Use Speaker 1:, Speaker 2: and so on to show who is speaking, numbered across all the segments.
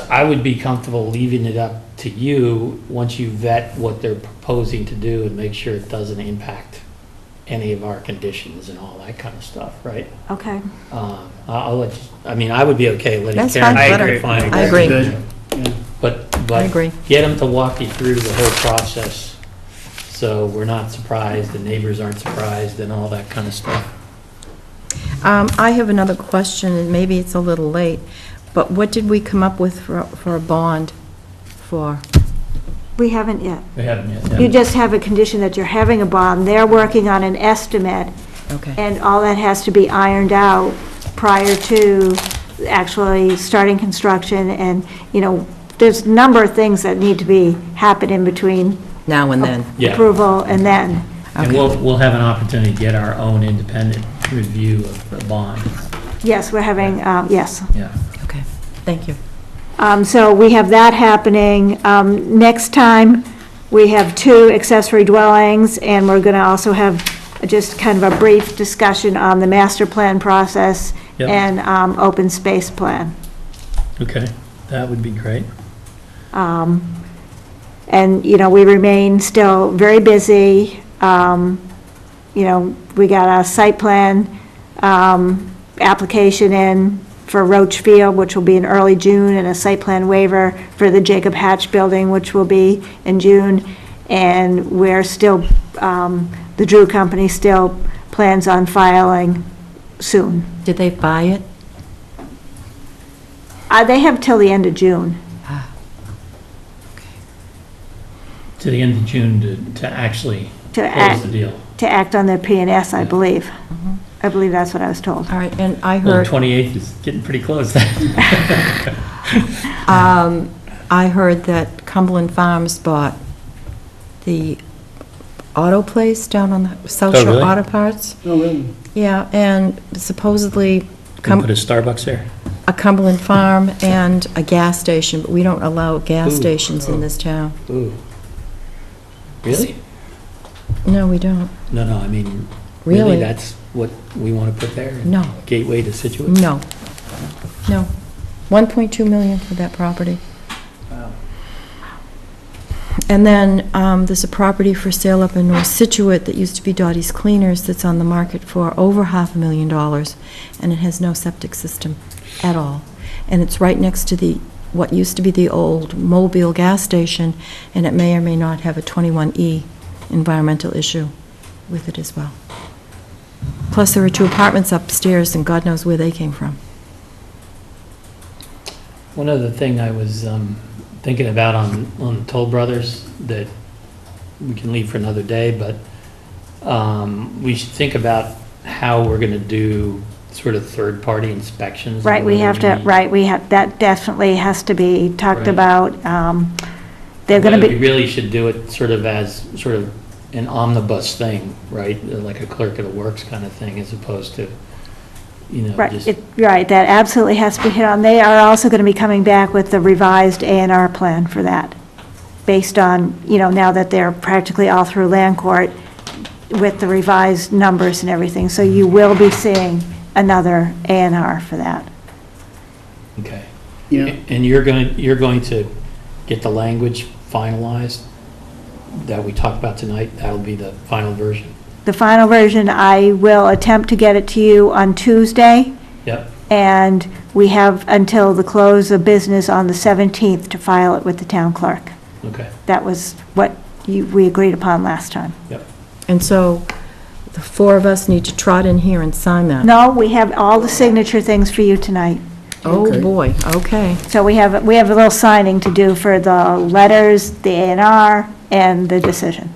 Speaker 1: I would be comfortable leaving it up to you, once you vet what they're proposing to do and make sure it doesn't impact any of our conditions and all that kind of stuff, right?
Speaker 2: Okay.
Speaker 1: Um, I- I'll let, you- I mean, I would be okay letting
Speaker 3: That's
Speaker 1: Karen.
Speaker 3: fine, let her-
Speaker 1: make the final
Speaker 3: I agree.
Speaker 1: decision. But,
Speaker 3: I
Speaker 1: but
Speaker 3: agree.
Speaker 1: get them to walk you through the whole process, so we're not surprised, the neighbors aren't surprised, and all that kind of stuff.
Speaker 3: Um, I have another question, and maybe it's a little late, but what did we come up with for, for a bond for?
Speaker 2: We haven't yet.
Speaker 1: They haven't
Speaker 2: You just have a condition that you're having a bond. They're working on an estimate,
Speaker 3: Okay,
Speaker 2: and all that has to be ironed out prior to actually starting construction. And, you know, there's a number of things that need to be, happen in between
Speaker 3: now and then,
Speaker 1: Yeah.
Speaker 2: approval and then.
Speaker 1: And we'll, we'll have an opportunity to get our own independent review of the bond,
Speaker 2: Yes, we're having, um, yes.
Speaker 1: yeah.
Speaker 3: okay, thank you.
Speaker 2: Um, So we have that happening. Um, Next time, we have two accessory dwellings, and we're going to also have just kind of a brief discussion on the master plan process
Speaker 1: Yep.
Speaker 2: and um, open space plan.
Speaker 1: Okay, that would be great.
Speaker 2: Um, And, you know, we remain still very busy. Um, You know, we got a site plan um, application in for Roach Field, which will be in early June, and a site plan waiver for the Jacob Hatch Building, which will be in June. And we're still, um, the Drew Company still plans on filing soon.
Speaker 3: Did they buy it?
Speaker 2: Uh, They have till the end of June.
Speaker 3: Ah,
Speaker 1: To the end of June to, to actually
Speaker 2: to
Speaker 1: close
Speaker 2: act.
Speaker 1: the deal.
Speaker 2: to act on their PNS, I
Speaker 1: Yeah. Mm-hmm.
Speaker 2: believe. I believe that's what I was told.
Speaker 3: All right, and I
Speaker 1: Well,
Speaker 3: heard,
Speaker 1: 28th is getting pretty close.
Speaker 3: um, I heard that Cumberland Farms bought the auto place down on the South
Speaker 1: Oh,
Speaker 3: Shore
Speaker 1: really? Oh,
Speaker 3: Auto Parts.
Speaker 4: No, really?
Speaker 3: Yeah, and supposedly Cum-
Speaker 1: Put a Starbucks there.
Speaker 3: a Cumberland farm and a gas station, but we don't allow gas
Speaker 1: Ooh. Oh.
Speaker 3: stations in this town.
Speaker 1: Ooh. Really?
Speaker 3: No, we don't.
Speaker 1: No, no, I mean, really,
Speaker 3: Really?
Speaker 1: that's what we want to put there?
Speaker 3: No,
Speaker 1: Gateway to Situate?
Speaker 2: Mm.
Speaker 3: no, no. 1.2 million for that property. And then um, there's a property for sale up in North Situate that used to be Dottie's Cleaners that's on the market for over half a million dollars, and it has no septic system at all. And it's right next to the, what used to be the old Mobile gas station, and it may or may not have a 21E environmental issue with it as well. Plus, there are two apartments upstairs, and God knows where they came from.
Speaker 1: One other thing I was um, thinking about on, on Toll Brothers that we can leave for another day, but um, we should think about how we're going to do sort of third-party inspections. and
Speaker 2: Right, we have to,
Speaker 1: whether we-
Speaker 2: right, we have, that definitely has to be talked
Speaker 1: Right.
Speaker 2: about. Um, They're going to
Speaker 1: Whether we
Speaker 2: be,
Speaker 1: really should do it sort of as, sort of an omnibus thing, right? Like a clerk of the works kind of thing, as opposed to, you know,
Speaker 2: right,
Speaker 1: just,
Speaker 2: it- right, that absolutely has to be hit on. They are also going to be coming back with the revised A and R plan for that, based on, you know, now that they're practically all through land court with the revised numbers and everything. So you
Speaker 1: Mm-hmm.
Speaker 2: will be seeing another A and R for that.
Speaker 1: okay.
Speaker 4: Yeah,
Speaker 1: And you're going, you're going to get the language finalized that we talked about tonight? That'll be the final version?
Speaker 2: The final version, I will attempt to get it to you on Tuesday,
Speaker 1: Yep,
Speaker 2: and we have until the close of business on the 17th to file it with the town clerk.
Speaker 1: okay,
Speaker 2: That was what you, we agreed upon last time.
Speaker 1: yep.
Speaker 3: And so, the four of us need to trot in here and sign that.
Speaker 2: No, we have all the signature things for you tonight.
Speaker 3: Oh,
Speaker 4: Okay.
Speaker 3: boy, okay.
Speaker 2: So we have, we have a little signing to do for the letters, the A and R, and the decision.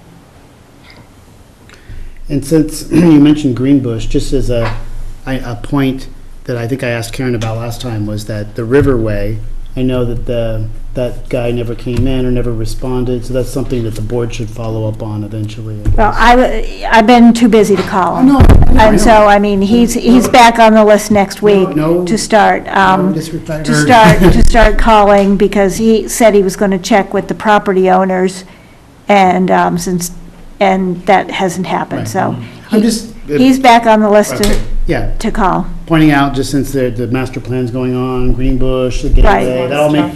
Speaker 4: and since you mentioned Greenbush, just as a, I- a point that I think I asked Karen about last time was that the Riverway, I know that the, that guy never came in or never responded, so that's something that the board should follow up on eventually. I guess.
Speaker 2: Well, I, w- I've been too busy to call him. And so, I mean, he's, he's back on the list next week
Speaker 4: No, no.
Speaker 2: to start. um,
Speaker 4: No disrespect.
Speaker 2: to start, to start calling, because he said he was going to check with the property owners, and um, since, and that hasn't happened, so.
Speaker 4: I'm just-
Speaker 2: he- He's back on the list
Speaker 4: Okay.
Speaker 2: to,
Speaker 4: Yeah,
Speaker 2: to call.
Speaker 4: pointing out, just since the, the master plan's going on, Greenbush, the
Speaker 2: Right.
Speaker 4: gateway, that all make,